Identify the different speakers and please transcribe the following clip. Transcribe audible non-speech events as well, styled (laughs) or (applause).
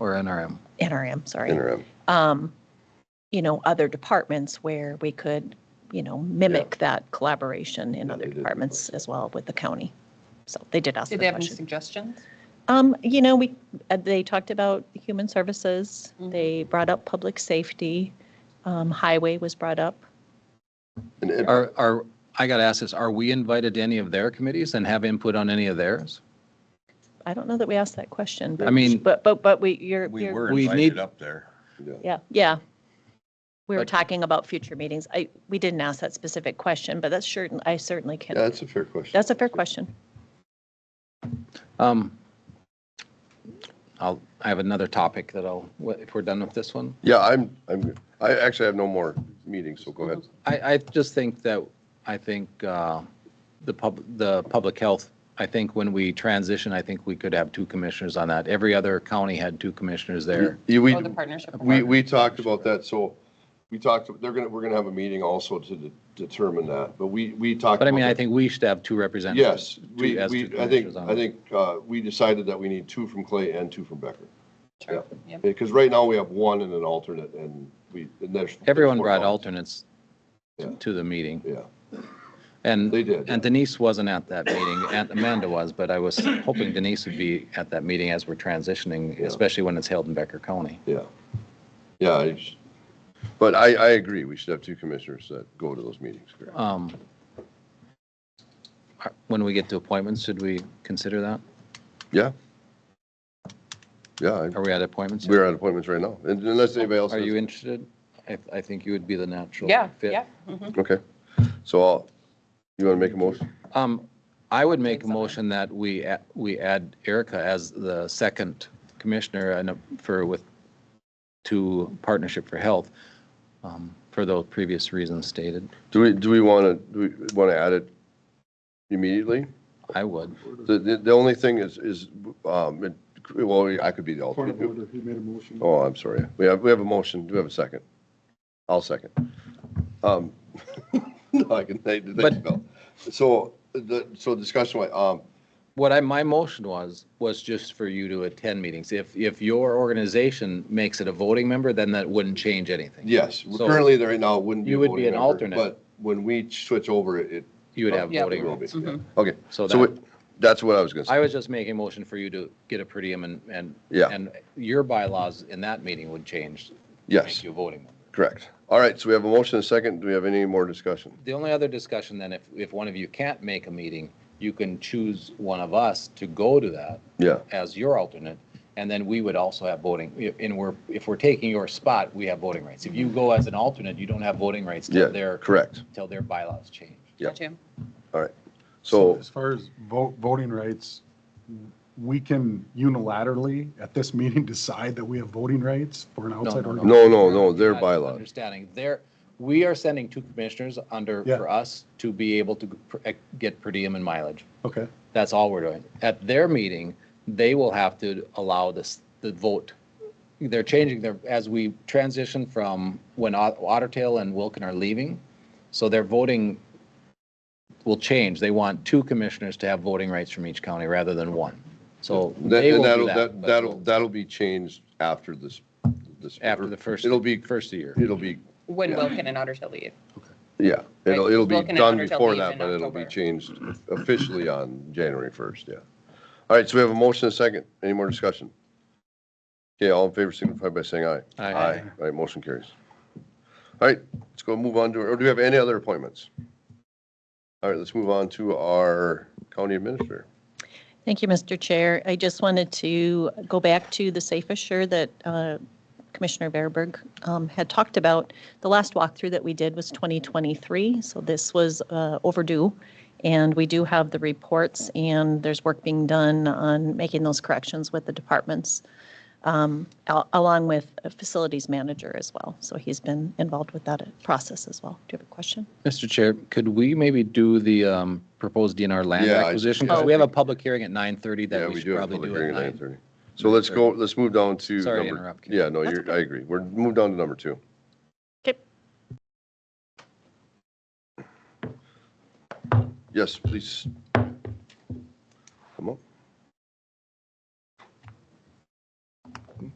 Speaker 1: or NRM?
Speaker 2: NRM, sorry,
Speaker 3: interim.
Speaker 2: um, you know, other departments where we could, you know, mimic that collaboration in
Speaker 3: Yeah,
Speaker 2: other
Speaker 3: they did.
Speaker 2: departments as well with the county. So they did ask the
Speaker 4: Did they have any
Speaker 2: question.
Speaker 4: suggestions?
Speaker 2: Um, you know, we, uh, they talked about human services,
Speaker 4: Mhm.
Speaker 2: they brought up public safety, um, highway was brought up.
Speaker 3: And it-
Speaker 1: Are, are, I got to ask this, are we invited to any of their committees and have input on any of theirs?
Speaker 2: I don't know that we asked that question,
Speaker 1: I
Speaker 2: but,
Speaker 1: mean,
Speaker 2: but, but, but we, you're,
Speaker 5: We
Speaker 2: you're,
Speaker 5: were
Speaker 1: We need-
Speaker 5: invited up there.
Speaker 3: yeah.
Speaker 2: yeah, yeah. We were
Speaker 1: But-
Speaker 2: talking about future meetings. I, we didn't ask that specific question, but that's certain, I certainly
Speaker 3: Yeah,
Speaker 2: can.
Speaker 3: that's a fair question.
Speaker 2: That's a fair question.
Speaker 1: um, I'll, I have another topic that I'll, if we're done with this one.
Speaker 3: Yeah, I'm, I'm, I actually have no more meetings, so go ahead.
Speaker 1: I, I just think that, I think uh, the pub, the public health, I think when we transition, I think we could have two commissioners on that. Every other county had two commissioners there.
Speaker 3: Yeah, we,
Speaker 4: Oh, the partnership.
Speaker 3: we, we talked about that, so we talked, they're gonna, we're gonna have a meeting also to de- determine that, but we, we talked.
Speaker 1: But I
Speaker 3: about
Speaker 1: mean, I
Speaker 3: that.
Speaker 1: think we should have two representatives.
Speaker 3: Yes,
Speaker 1: two-
Speaker 3: we,
Speaker 1: as two
Speaker 3: we, I think,
Speaker 1: commissioners on
Speaker 3: I
Speaker 1: it.
Speaker 3: think, uh, we decided that we need two from Clay and two from Becker.
Speaker 4: Sure, yep.
Speaker 3: Because right now we have one and an alternate and we, and there's.
Speaker 1: Everyone
Speaker 3: there's four
Speaker 1: brought
Speaker 3: alternates.
Speaker 1: alternates
Speaker 3: Yeah.
Speaker 1: to the meeting.
Speaker 3: Yeah,
Speaker 1: And.
Speaker 3: they did.
Speaker 1: And Denise wasn't at that meeting, Aunt Amanda was, but I was hoping Denise would be at that meeting as we're transitioning,
Speaker 3: Yeah.
Speaker 1: especially when it's held in Becker County.
Speaker 3: Yeah. Yeah, I just- but I, I agree, we should have two commissioners that go to those meetings. correct?
Speaker 1: Um, are- When we get to appointments, should we consider that?
Speaker 3: Yeah. Yeah, I-
Speaker 1: Are we at appointments?
Speaker 3: we're on appointments right now, and unless anybody else.
Speaker 1: Are
Speaker 3: has-
Speaker 1: you interested? I, I think you would be the natural
Speaker 4: Yeah,
Speaker 1: fit.
Speaker 4: yeah. mhm.
Speaker 3: Okay, so I'll, you want to make a motion?
Speaker 1: Um, I would make a
Speaker 4: Thanks, Alan.
Speaker 1: motion that we, a- we add Erica as the second commissioner and uh, for with, to Partnership for Health, um, for those previous reasons stated.
Speaker 3: Do we, do we want to, do we want to add it immediately?
Speaker 1: I would.
Speaker 3: The, the the only thing is, is, um, it- well, I could be the
Speaker 6: Point of
Speaker 3: alternate.
Speaker 6: order, he made a motion.
Speaker 3: Oh, I'm sorry. We have, we have a motion. Do we have a second? I'll second. Um, (laughs) no, I can, thank you,
Speaker 1: But-
Speaker 3: Bill. So, the, so discussion, wise, um,
Speaker 1: What I, my motion was, was just for you to attend meetings. If, if your organization makes it a voting member, then that wouldn't change anything.
Speaker 3: yes,
Speaker 1: So-
Speaker 3: currently there right now wouldn't be.
Speaker 1: You
Speaker 3: a
Speaker 1: would be
Speaker 3: voting
Speaker 1: an
Speaker 3: member,
Speaker 1: alternate.
Speaker 3: But when we switch over, it, it
Speaker 1: You would have
Speaker 4: Oh, Yeah.
Speaker 1: voting.
Speaker 3: will
Speaker 1: rights.
Speaker 3: be.
Speaker 4: Mhm.
Speaker 3: Okay,
Speaker 1: So
Speaker 3: so
Speaker 1: that,
Speaker 3: we- that's what I was going to say.
Speaker 1: I was just making a motion for you to get a per diem and, and.
Speaker 3: Yeah.
Speaker 1: And your bylaws in that meeting would change. to
Speaker 3: Yes.
Speaker 1: Make you a voting member.
Speaker 3: Correct. All right, so we have a motion and a second. Do we have any more discussion?
Speaker 1: The only other discussion then, if, if one of you can't make a meeting, you can choose one of us to go to that
Speaker 3: Yeah,
Speaker 1: as your alternate. And then we would also have voting, and we're, if we're taking your spot, we have voting rights. If you go as an alternate, you don't have voting rights till
Speaker 3: yeah,
Speaker 1: their,
Speaker 3: correct.
Speaker 1: till their bylaws change.
Speaker 3: Yeah.
Speaker 4: Gotcha.
Speaker 3: All right. So,
Speaker 6: As far as vote, voting rights, we can unilaterally at this meeting decide that we have voting rights for an outside
Speaker 1: no,
Speaker 6: organ.
Speaker 3: no, no, no, their
Speaker 1: Not
Speaker 3: bylaws.
Speaker 1: Understanding, there, we are sending two commissioners under,
Speaker 6: Yeah.
Speaker 1: for us to be able to pr- eh, get per diem and mileage.
Speaker 6: Okay,
Speaker 1: That's all we're doing. At their meeting, they will have to allow this, the vote. They're changing their, as we transition from when Ot- Ottertail and Wilken are leaving, so their voting will change. They want two commissioners to have voting rights from each county rather than one. So
Speaker 3: That-
Speaker 1: they
Speaker 3: and
Speaker 1: will do
Speaker 3: that'll,
Speaker 1: that.
Speaker 3: that-
Speaker 1: but
Speaker 3: that'll, that'll be changed after this, this.
Speaker 1: After the first.
Speaker 3: It'll be,
Speaker 1: First year.
Speaker 3: it'll be,
Speaker 4: When Wilken and Otter Tail leave.
Speaker 3: yeah, it'll,
Speaker 4: Right,
Speaker 3: it'll be
Speaker 4: Vulcan and
Speaker 3: done
Speaker 4: Hunter Hill
Speaker 3: before
Speaker 4: leave
Speaker 3: that,
Speaker 4: in
Speaker 3: but it'll be
Speaker 4: October.
Speaker 3: changed officially on January 1st, yeah. All right, so we have a motion and a second. Any more discussion? Okay, all in favor signify by saying aye.
Speaker 1: Aye.
Speaker 3: All right, motion carries. All right, let's go move on to, or do we have any other appointments? All right, let's move on to our county administrator.
Speaker 2: Thank you, Mr. Chair. I just wanted to go back to the Safe Assure that uh, Commissioner Bearberg um, had talked about. The last walkthrough that we did was 2023, so this was uh, overdue. And we do have the reports, and there's work being done on making those corrections with the departments, um, al- along with a facilities manager as well. So he's been involved with that process as well. Do you have a question?
Speaker 1: Mr. Chair, could we maybe do the um, proposed DNR land
Speaker 3: Yeah, I-
Speaker 1: acquisition?
Speaker 3: yeah, I
Speaker 1: Because we have a public hearing at 9:30
Speaker 3: Yeah,
Speaker 1: that we
Speaker 3: we
Speaker 1: should
Speaker 3: do have a
Speaker 1: probably
Speaker 3: public
Speaker 1: do at
Speaker 3: hearing at
Speaker 1: 9.
Speaker 3: 9:30. So let's go, let's move down to.
Speaker 1: Sorry to
Speaker 3: number-
Speaker 1: interrupt you.
Speaker 3: Yeah, no, you're, I agree. We're, move down to number two.
Speaker 2: Okay.
Speaker 3: Yes, please. Come on.